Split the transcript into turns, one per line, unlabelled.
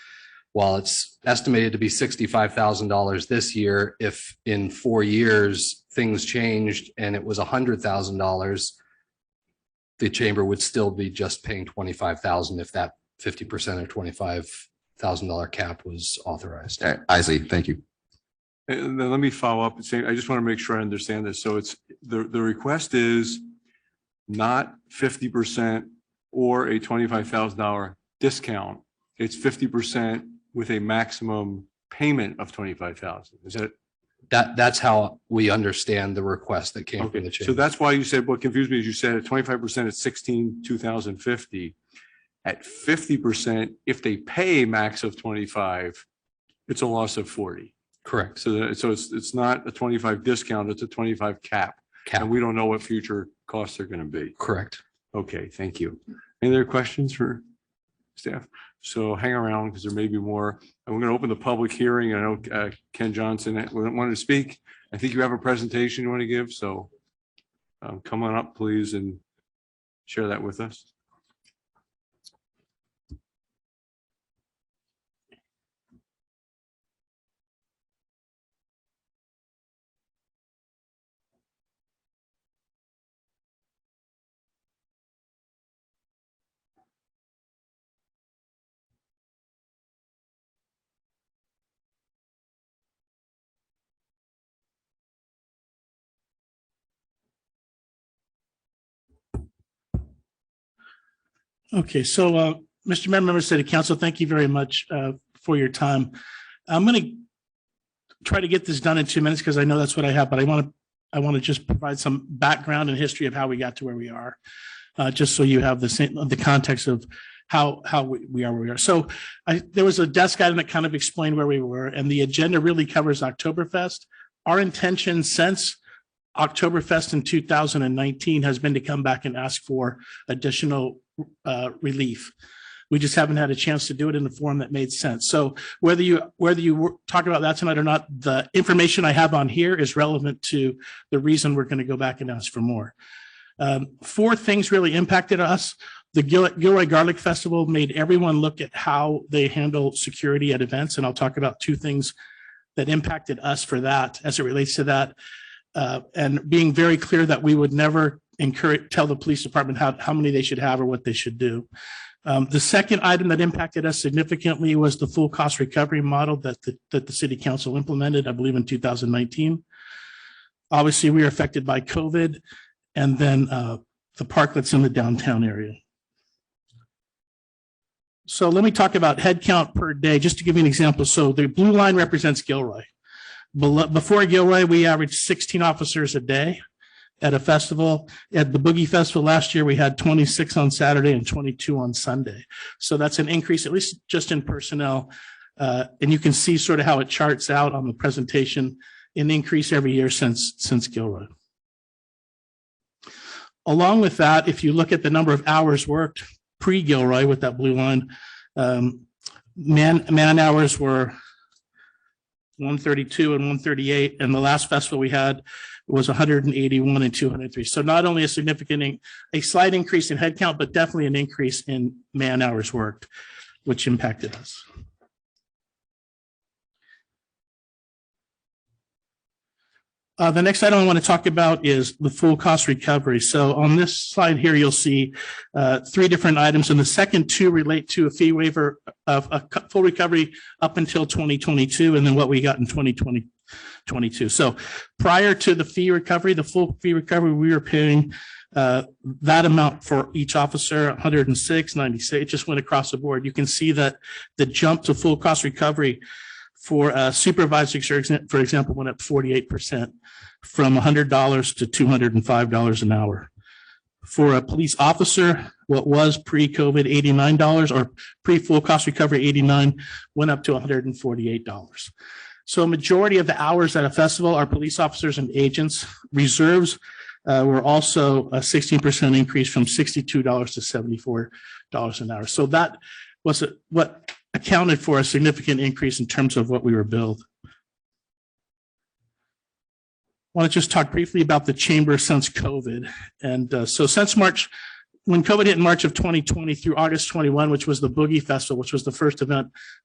while it's estimated to be sixty-five thousand dollars this year, if in four years things changed and it was hundred thousand dollars, the chamber would still be just paying twenty-five thousand if that fifty percent or twenty-five thousand dollar cap was authorized.
Uh, Isley, thank you.
And then let me follow up and say, I just want to make sure I understand this. So it's, the, the request is not fifty percent or a twenty-five thousand dollar discount. It's fifty percent with a maximum payment of twenty-five thousand. Is that,
That, that's how we understand the request that came from
okay,
the
so
chamber.
that's why you said, what confused me is you said at twenty-five percent, it's sixteen, two thousand fifty. At fifty percent, if they pay a max of twenty-five, it's a loss of forty.
Correct.
So that, so it's, it's not a twenty-five discount, it's a twenty-five cap.
Cap,
And we don't know what future costs are going to be.
correct.
Okay, thank you. Any other questions for staff? So hang around because there may be more. And we're going to open the public hearing. I know uh, Ken Johnson wanted to speak. I think you have a presentation you want to give, so um, come on up, please, and share that with us.
Okay, so, uh, Mr. Mayor, members of City Council, thank you very much, uh, for your time. I'm going to try to get this done in two minutes because I know that's what I have, but I want to, I want to just provide some background and history of how we got to where we are. Uh, just so you have the same, the context of how, how we we are where we are. So I, there was a desk item that kind of explained where we were and the agenda really covers Oktoberfest. Our intention since Oktoberfest in two thousand and nineteen has been to come back and ask for additional uh, relief. We just haven't had a chance to do it in a form that made sense. So whether you, whether you were- talk about that tonight or not, the information I have on here is relevant to the reason we're going to go back and ask for more. Um, Four things really impacted us. The Gil- Gilroy Garlic Festival made everyone look at how they handle security at events, and I'll talk about two things that impacted us for that as it relates to that. Uh, and being very clear that we would never encourage, tell the police department how, how many they should have or what they should do. Um, the second item that impacted us significantly was the full cost recovery model that the, that the city council implemented, I believe in two thousand nineteen. Obviously, we were affected by COVID and then, uh, the park that's in the downtown area. So let me talk about headcount per day, just to give you an example. So the blue line represents Gilroy. Below, before Gilroy, we averaged sixteen officers a day at a festival. At the Boogie Festival last year, we had twenty-six on Saturday and twenty-two on Sunday. So that's an increase, at least just in personnel. Uh, and you can see sort of how it charts out on the presentation, an increase every year since, since Gilroy. Along with that, if you look at the number of hours worked pre-Gilroy with that blue line, um, man, man hours were one thirty-two and one thirty-eight, and the last festival we had was hundred and eighty-one and two hundred and three. So not only a significant, in- a slight increase in headcount, but definitely an increase in man hours worked, which impacted us. Uh, the next item I want to talk about is the full cost recovery. So on this slide here, you'll see uh, three different items, and the second two relate to a fee waiver of a cu- full recovery up until twenty twenty-two, and then what we got in 2020 22. So prior to the fee recovery, the full fee recovery, we were paying uh, that amount for each officer, 106, 96, it just went across the board. You can see that the jump to full cost recovery for uh, supervisors, for exa- for example, went up 48% from $100 to $205 an hour. For a police officer, what was pre-COVID $89 or pre-full cost recovery 89 went up to $148. So a majority of the hours at a festival are police officers and agents. Reserves uh, were also a sixteen percent increase from sixty-two dollars to seventy-four dollars an hour. So that was a- what accounted for a significant increase in terms of what we were billed. Want to just talk briefly about the chamber since COVID. And uh, so since March, when COVID hit in March of twenty twenty through August twenty-one, which was the Boogie Festival, which was the first event